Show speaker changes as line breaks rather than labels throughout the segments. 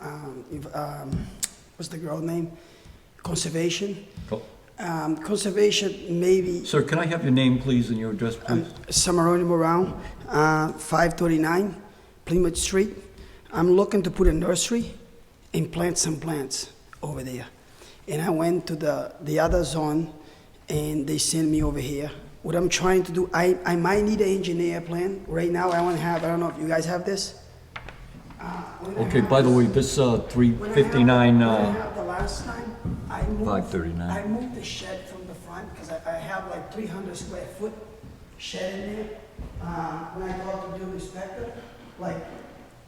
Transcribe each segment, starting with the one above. um, if, um, what's the girl name? Conservation.
Oh,
Um, Conservation, maybe
Sir, can I have your name, please, and your address, please?
Samaroni Brown, uh, 539 Plymouth Street. I'm looking to put a nursery and plant some plants over there. And I went to the, the other zone and they sent me over here. What I'm trying to do, I, I might need an engineer plan. Right now, I want to have, I don't know if you guys have this. Uh,
Okay, by the way, this uh,
When I have-
359,
When I
uh,
have the last time, I moved.
539.
I moved the shed from the front, because I, I have like three hundred square foot shed in there. Uh, when I got to do inspector, like,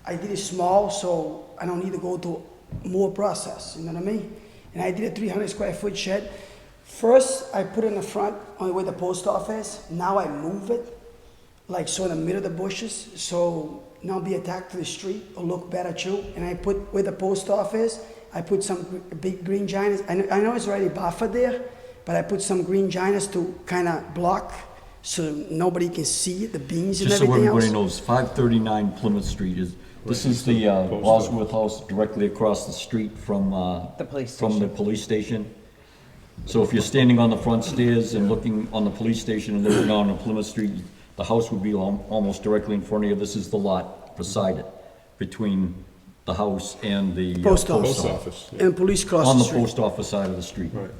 I did it small, so I don't need to go to more process, you know what I mean? And I did a three hundred square foot shed. First, I put in the front, on where the post office, now I move it like so in the middle of the bushes, so not be attacked to the street or look better too. And I put where the post office, I put some gr- big green giants. I know, I know it's already buffered there, but I put some green giants to kind of block so nobody can see the beans and
just so
everything
everybody
else.
knows, 539 Plymouth Street is, this is the uh, Bosworth House directly across the street from, uh,
The police
From the police station. So if you're standing on the front stairs and looking on the police station and looking down on Plymouth Street, the house would be al- almost directly in front of you. This is the lot beside it, between the house and the. uh,
Post office
Post office, yeah.
and police cross
On
the
the
street.
post office side of the street.
right.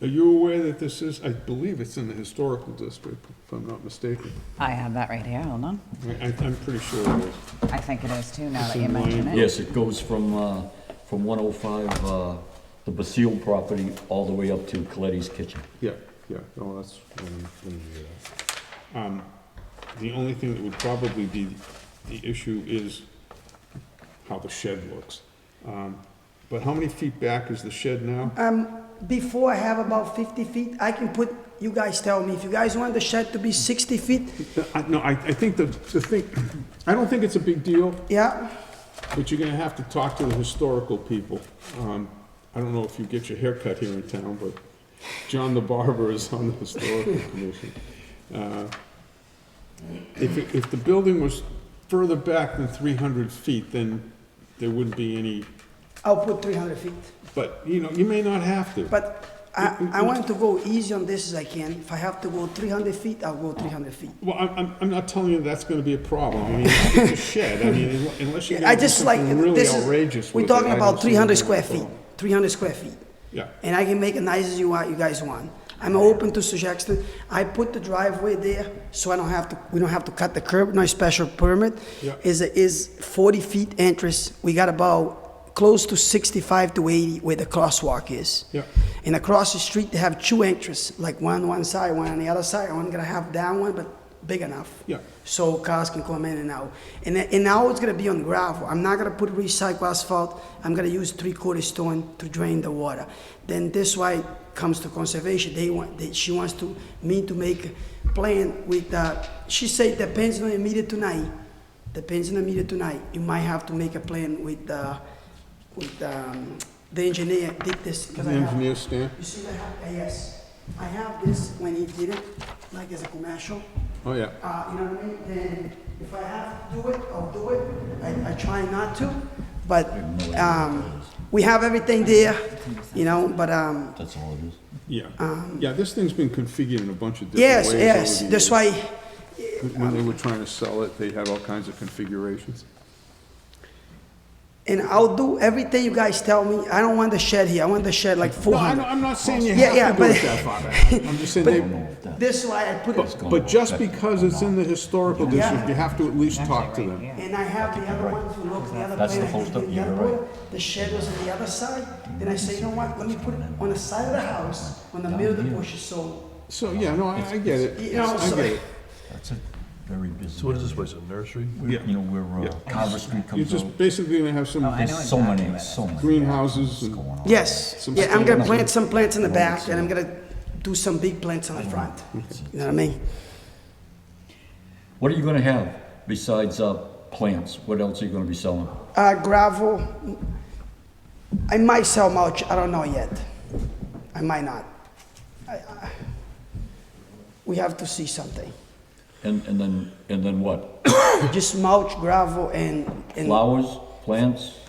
Are you aware that this is, I believe it's in the historical district, if I'm not mistaken?
I have that right here, hold on.
I, I- I'm pretty sure it is.
I think it is too, now
It's
that you
in
mention
line.
it.
Yes, it goes from, uh, from 105, uh, the Basile property, all the way up to Coletti's Kitchen.
Yeah, yeah, no, that's, um, let me do that. Um, the only thing that would probably be the issue is how the shed looks. Um, But how many feet back is the shed now?
Um, before I have about 50 feet, I can put, you guys tell me, if you guys want the shed to be 60 feet,
I- Uh, No, I, I think the, the thing, I don't think it's a big deal,
yeah,
but you're gonna have to talk to the historical people. Um, I don't know if you get your hair cut here in town, but John the Barber is on the Historical Commission. Uh, If, it- if the building was further back than three hundred feet, then there wouldn't be any,
I'll put 300 feet.
but, you know, you may not have to.
But I, I want to go easy on this as I can. If I have to go 300 feet, I'll go 300 feet.
Well, I'm, I'm, I'm not telling you that's gonna be a problem. I mean, it's a shed, I mean, unle- unless you're
I
gonna do
just like,
something really
this
outrageous
is,
with
we're
it.
talking
I
about
don't see it
300
being a
square feet,
problem.
300 square feet.
Yeah.
And I can make it nice as you want, you guys want. I'm open to suggestions. I put the driveway there so I don't have to, we don't have to cut the curb, no special permit.
Yeah.
Is, is 40 feet entrance. We got about close to 65 to 80 where the crosswalk is.
Yeah.
And across the street, they have two entrances, like one on one side, one on the other side. I'm gonna have that one, but big enough.
Yeah.
So cars can come in and out. And, then- and now it's gonna be on gravel. I'm not gonna put recycled asphalt. I'm gonna use three-quarter stone to drain the water. Then this why comes to conservation. They want, they, she wants to, me to make a plan with, uh, she said depends on the meter tonight. Depends on the meter tonight. You might have to make a plan with, uh, with, um, the engineer did this. 'cause
The
I have-
engineer stand?
you see, I have, uh, yes, I have this when he did it, like as a commercial,
Oh, yeah.
uh, you know what I mean? Then if I have to do it, I'll do it. I, I try not to, but, um, we have everything there, you know, but, um,
That's all it is.
Yeah, yeah, this thing's been configured in a bunch of different
yes,
ways. over
yes,
the
that's
years.
why,
When they were trying to sell it, they had all kinds of configurations.
and I'll do everything you guys tell me. I don't want the shed here. I want the shed like four
No, I don't-
hundred.
I'm not saying you
Yeah, yeah,
have to do it
but-
that far back. I'm just saying, they-
This is why I put it,
but just because it's in the historical district, you have to at least talk to them.
and I have the other ones who look the other
That's
way.
the
I
whole
did
stuff,
the
you're
other
right.
way. The shed was on the other side, then I say, you know what, let me put it on the side of the house, on the middle of the bushes, so
So, yeah, no, I I get it.
You know,
I
so-
get it.
That's a very busy.
So what is this place, a nursery?
You know, where uh, Carver Street
You're
comes out.
just basically gonna have
Oh, I
some
know
There's so
exactly
many,
where
so many.
greenhouses and,
going on.
Yes,
Some
yeah, I'm gonna
stands.
plant some plants in the back, and I'm gonna do some big plants on the front, you know what I mean?
What are you gonna have besides, uh, plants? What else are you gonna be selling?
Uh, gravel, I might sell mulch, I don't know yet, I might not. I- I- We have to see something,
And, and then, and then what?
just mulch, gravel, and, and
Flowers, plants?